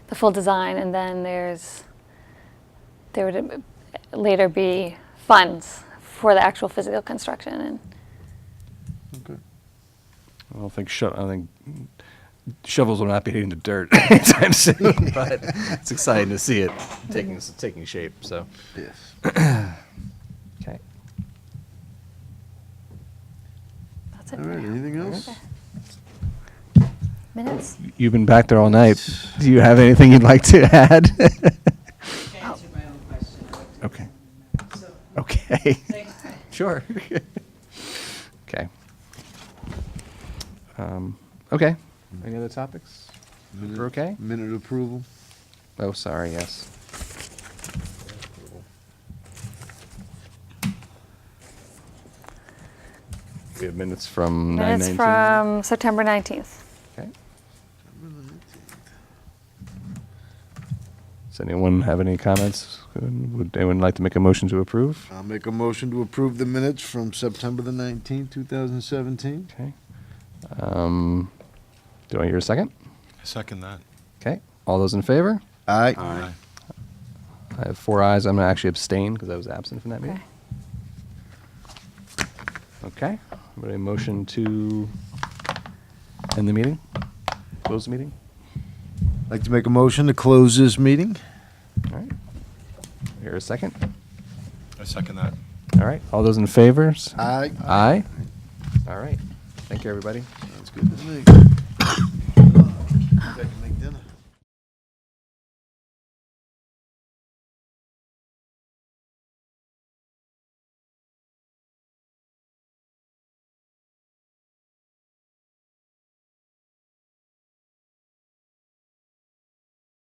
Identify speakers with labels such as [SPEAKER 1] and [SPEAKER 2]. [SPEAKER 1] full design, and then there's, there would later be funds for the actual physical construction, and
[SPEAKER 2] Okay.
[SPEAKER 3] I don't think sho- I think shovels will not be hitting the dirt anytime soon. but it's exciting to see it taking taking shape. So
[SPEAKER 2] Yes.
[SPEAKER 3] okay,
[SPEAKER 1] that's it.
[SPEAKER 2] All
[SPEAKER 1] for
[SPEAKER 2] right,
[SPEAKER 1] now.
[SPEAKER 2] anything else?
[SPEAKER 1] Minutes?
[SPEAKER 3] you've been back there all night. Do you have anything you'd like to add?
[SPEAKER 4] answered my own question. I looked at
[SPEAKER 3] Okay.
[SPEAKER 4] it. So,
[SPEAKER 3] okay,
[SPEAKER 4] thanks.
[SPEAKER 3] sure. okay. Um, okay. Any other topics?
[SPEAKER 2] Minute-
[SPEAKER 3] We're okay.
[SPEAKER 2] Minute approval?
[SPEAKER 3] Oh, sorry. Yes. We have minutes from
[SPEAKER 1] Minutes
[SPEAKER 3] 9:19.
[SPEAKER 1] from September 19th.
[SPEAKER 3] Okay. Does anyone have any comments? Would anyone like to make a motion to approve?
[SPEAKER 2] I'll make a motion to approve the minutes from September the nineteenth, two thousand seventeen.
[SPEAKER 3] Okay. Um, do I hear a second?
[SPEAKER 5] I second that.
[SPEAKER 3] Okay. All those in favor?
[SPEAKER 2] Aye.
[SPEAKER 5] Aye.
[SPEAKER 3] I have four ayes. I'm going to actually abstain because I was absent from that meeting.
[SPEAKER 1] Okay.
[SPEAKER 3] Okay. Would a motion to end the meeting? Close the meeting?
[SPEAKER 2] Like to make a motion to close this meeting?
[SPEAKER 3] All right. Hear a second?
[SPEAKER 5] I second that.
[SPEAKER 3] All right. All those in favor?
[SPEAKER 2] Aye.
[SPEAKER 3] Aye. All right. Thank you, everybody.
[SPEAKER 2] Sounds good to me. Take a